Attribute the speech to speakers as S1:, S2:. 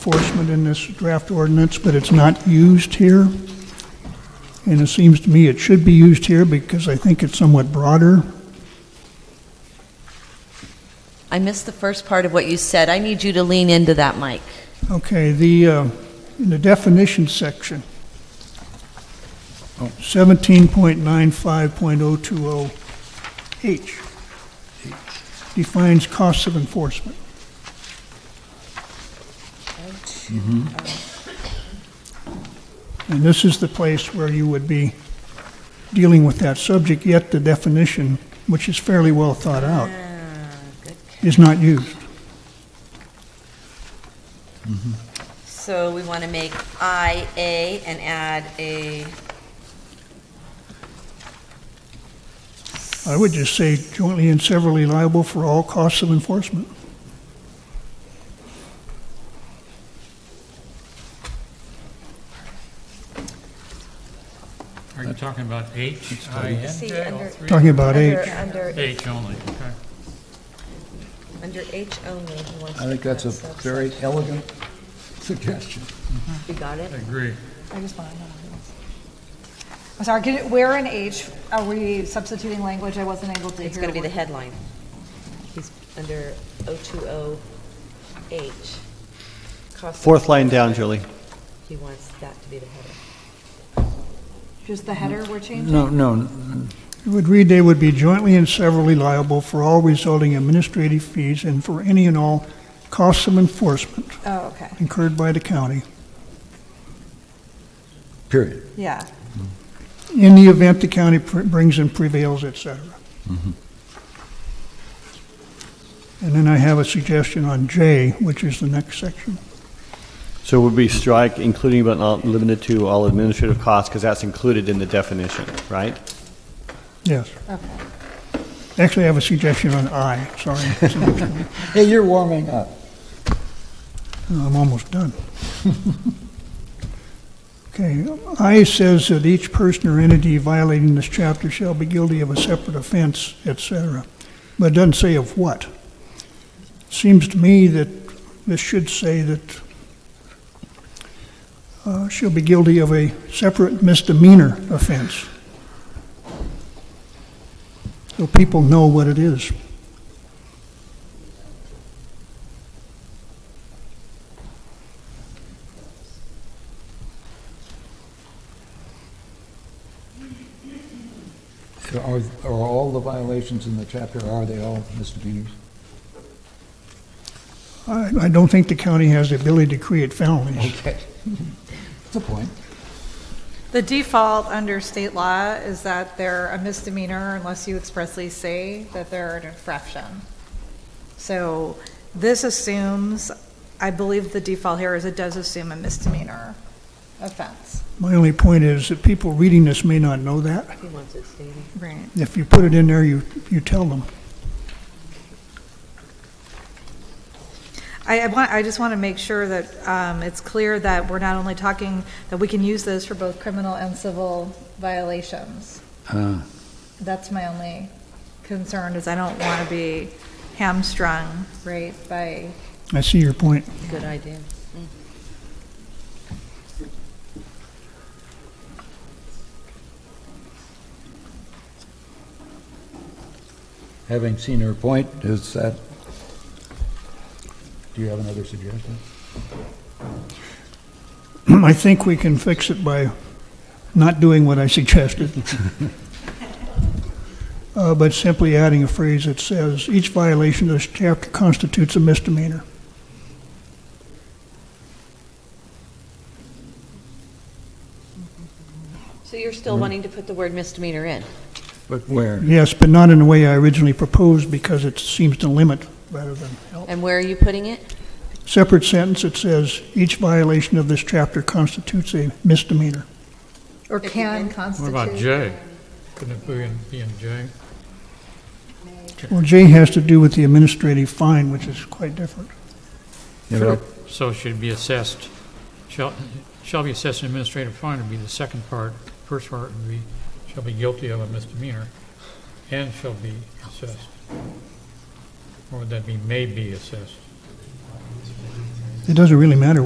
S1: enforcement in this draft ordinance, but it's not used here. And it seems to me it should be used here because I think it's somewhat broader.
S2: I missed the first part of what you said. I need you to lean into that mic.
S1: Okay, the, uh, in the definition section, 17.95.020H defines costs of enforcement. Mm-hmm. And this is the place where you would be dealing with that subject, yet the definition, which is fairly well thought out, is not used.
S2: So we want to make IA and add a,
S1: I would just say jointly and severally liable for all costs of enforcement.
S3: Are you talking about H, I, N,
S4: See,
S3: J, all
S4: under-
S3: three?
S1: Talking about
S4: Under-
S1: H.
S4: Under,
S3: H only, okay.
S4: under H only, he wants
S5: I
S4: to
S5: think that's a
S4: add subsection.
S5: very elegant suggestion.
S4: You got it?
S3: I agree.
S6: I just want to know. I'm sorry, could it- where in H are we substituting language I wasn't able to hear?
S4: It's going to be the
S6: what-
S4: headline. He's under 020H. Cost of-
S7: Fourth line down, Julie.
S4: He wants that to be the header.
S6: Just the header we're changing?
S5: No, no,
S1: It would read they would be jointly and severally liable for all resulting administrative fees and for any and all costs of enforcement
S6: Oh, okay,
S1: incurred by the county
S5: period.
S6: yeah.
S1: in the event the county pr- brings and prevails, et cetera. And then I have a suggestion on J, which is the next section.
S7: So would we strike including but not limited to all administrative costs, because that's included in the definition, right?
S1: Yes. Actually, I have a suggestion on I, sorry.
S5: Hey, you're warming up.
S1: I'm almost done. Okay, I says that each person or entity violating this chapter shall be guilty of a separate offense, et cetera, but it doesn't say of what. Seems to me that this should say that uh, she'll be guilty of a separate misdemeanor offense. So people know what it is.
S5: So Are, are all the violations in the chapter, are they all misdemeanors?
S1: I, I don't think the county has the ability to create felonies.
S5: Okay. That's a point.
S6: The default under state law is that they're a misdemeanor unless you expressly say that they're an infraction. So this assumes, I believe the default here is it does assume a misdemeanor offense.
S1: My only point is that people reading this may not know that.
S4: He wants it stated.
S6: Right.
S1: If you put it in there, you, you tell them.
S6: I, I want, I just want to make sure that um, it's clear that we're not only talking, that we can use this for both criminal and civil violations.
S5: Uh,
S6: That's my only concern, is I don't want to be hamstrung, right, by,
S1: I see your point.
S4: Good idea.
S5: Having seen her point, is that, do you have another suggestion?
S1: I think we can fix it by not doing what I suggested. Uh, but simply adding a phrase that says, each violation of this chapter constitutes a misdemeanor.
S4: So you're
S5: Mm-hmm.
S4: still wanting to put the word misdemeanor in?
S5: But where?
S1: Yes, but not in the way I originally proposed because it seems to limit rather than help.
S4: And where are you putting it?
S1: Separate sentence, it says, each violation of this chapter constitutes a misdemeanor.
S6: or can
S3: What
S6: constitute.
S3: about J? Couldn't it be in, be in J?
S1: Well, J has to do with the administrative fine, which is quite different.
S5: You know,
S3: So should be assessed, shall, shall be assessed an administrative fine would be the second part. First part would be, shall be guilty of a misdemeanor and shall be assessed. Or would that be may be assessed?
S1: it doesn't really matter